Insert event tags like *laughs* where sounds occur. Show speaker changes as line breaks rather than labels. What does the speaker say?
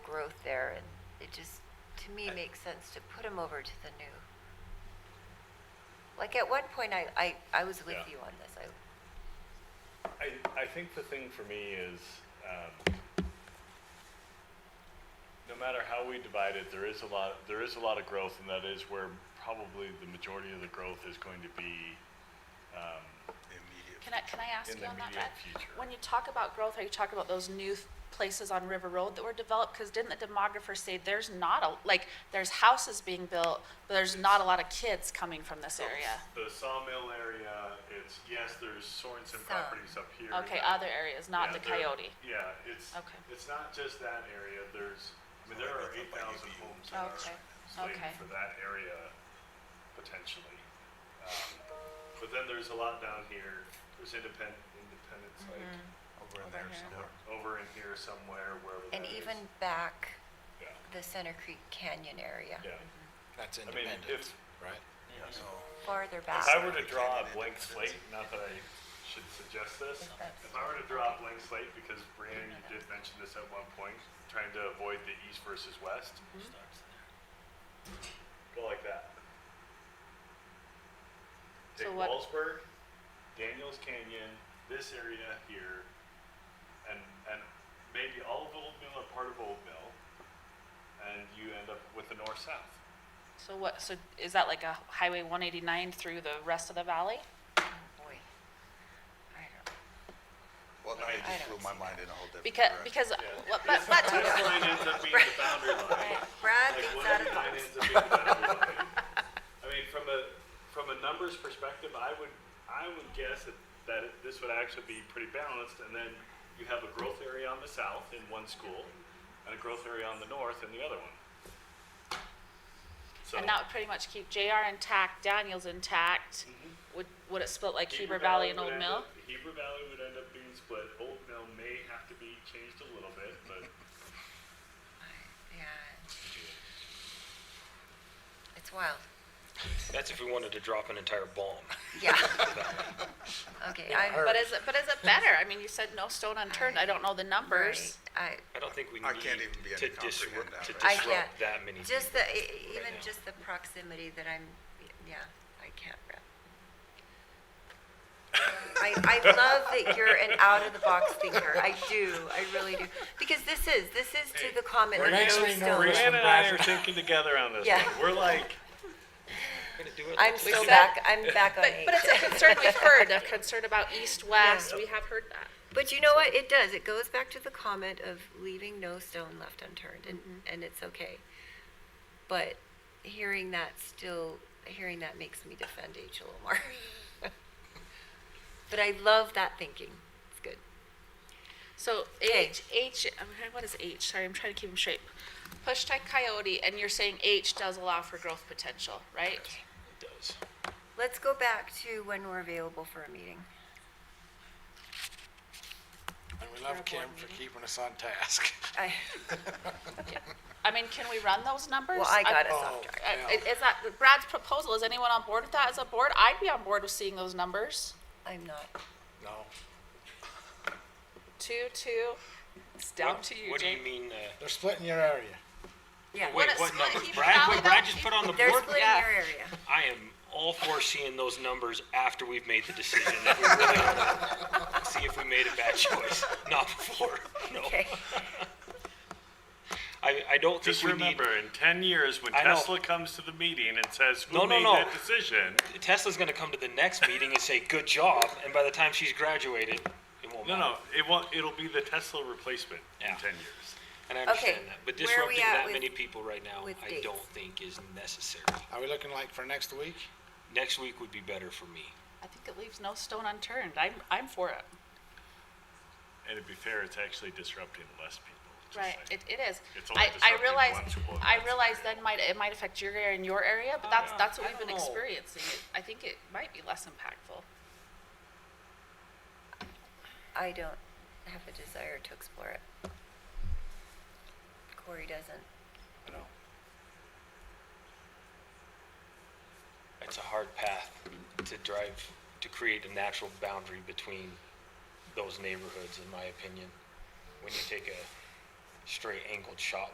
growth there, and it just, to me, makes sense to put them over to the new. Like, at one point, I, I, I was with
Yeah.
you on this, I,
I, I think the thing for me is, um, no matter how we divide it, there is a lot, there is a lot of growth, and that is where probably the majority of the growth is going to be, um,
immediate.
Can I, can I ask
In
you
the
on that,
immediate
Brad?
future.
When you talk about growth, are you talking about those new th- places on River Road that were developed? Because didn't the demographer say there's not a, like, there's houses being built, but there's not a lot of kids coming from this area?
The sawmill area, it's, yes, there's Sorenson
Some.
properties up here.
Okay,
that-
other areas, not
Yeah,
the
there-
Coyote.
Yeah, it's,
Okay.
it's not just that area, there's, I mean, there are eight thousand homes in our
Okay,
slated
okay.
for that area potentially. Um, But then there's a lot down here, there's independent, independence, like,
Over in there
here.
somewhere.
over in here somewhere, wherever that
and
is.
even back
Yeah,
the Center Creek Canyon area,
yeah.
That's
I mean,
independent,
if,
right?
So,
farther
if
back.
I were to
Canyon
draw a
and
blank
Independence.
slate, not that I should suggest this, if I were to draw a blank slate, because Brianna, you did mention this at one point, trying to avoid the east versus west. Go like that.
So
Take
what-
Wallsburg, Daniels Canyon, this area here, and, and maybe all of Old Mill or part of Old Mill, and you end up with the north-south.
So what, so is that like a Highway one eighty-nine through the rest of the valley?
Boy, I don't know.
well, now
I
you
mean,
just
I
blew
don't
my
see
mind in a whole different
Because,
direction.
because,
Yeah.
well, but,
*laughs*
but,
This line ends up being the boundary line.
Brad
Like,
thinks
what
out
if
of
the line
box.
ends up being the boundary line? I mean, from a, from a numbers perspective, I would, I would guess that, that it- this would actually be pretty balanced, and then you have a growth area on the south in one school, and a growth area on the north in the other one. So,
and that would pretty much keep JR intact, Daniels intact. Would, would it split like
Heber
Heber Valley and
Mm-hmm. would
Old
end
Mill?
up- Heber Valley would end up being split, Old Mill may have to be changed a little bit, but
Yeah. It's wild,
That's if we wanted to drop an entire bomb.
yeah. Okay, I'm.
But is it, but is it better? I mean, you said no stone unturned. I don't know the numbers.
I,
I don't think we need
I can't even begin
to
to comprehend
disrupt,
that,
to
right?
I
disrupt
can't.
that many.
Just the,
people.
e- e- even
now.
just the proximity that I'm, yeah, I can't wrap. I, I love that you're an out-of-the-box thinker. I do, I really do. Because this is, this is to the comment
We're
that
actually
I'm
no
still,
reason-
Brianna and I are thinking together on this
Yeah.
one. We're like,
We're gonna do it
I'm
like
still
this.
back, I'm
*laughs*
back on
But,
eight.
but it's a concern we've heard, a concern about east, west.
Yeah.
We have heard that.
But you know what? It does. It goes back to the comment of leaving no stone left unturned, and, and it's okay. But hearing that still, hearing that makes me defend H a little more. *laughs* but I love that thinking. It's good.
So
Okay.
H, H, I'm trying- what is H? Sorry, I'm trying to keep them straight. Push type coyote, and you're saying H does allow for growth potential, right?
It does.
Let's go back to when we're available for a meeting.
*laughs* And we love Kim for keeping us on task.
I,
I mean, can we run those numbers?
well, I got us
*laughs* Oh,
off track.
I-
yeah.
Is that Brad's proposal? Is anyone on board with that as a board? I'd be on board with seeing those numbers.
I'm not.
No,
Two, two, it's down
What
to you,
what do you
Jamie.
mean, uh,
they're splitting your area.
Yeah,
wait,
a
what
split.
numbers?
He
Brad,
followed
what Brad
up.
just put on the
they're
board?
splitting
Yeah.
your area.
I am all for seeing those numbers after we've made the decision. that we really wanna See if we made a bad choice, not before, no.
*laughs* Okay.
I, I don't think
Just
we need,
remember, in 10 years, when
I know.
Tesla comes to the meeting and says, Who
No, no,
made
no.
that decision?
Tesla's gonna come to the next meeting and say, good job, and by the time she's graduated, it won't
No,
matter.
no, it won't, it'll be the Tesla replacement in
Yeah.
10 years.
And I
Okay,
understand that, but
where are we
disrupting
at
that
with-
many people right now,
with
I
dates?
don't think is necessary.
Are we looking like for next week?
Next week would be better for me.
I think it leaves no stone unturned. I'm, I'm for it.
And to be fair, it's actually disrupting less people. just
Right,
like-
it, it is.
It's only
I, I
disrupting
realize,
one school, and
I
that's
realize
the area.
then might, it might affect your area and your area, but
Oh,
that's,
yeah.
that's what
I
we've been
don't know.
experiencing. It- I think it might be less impactful.
I don't have a desire to explore it. Corey doesn't.
No.
It's a hard path to drive, to create a natural boundary between those neighborhoods, in my opinion. When you take a straight angled shot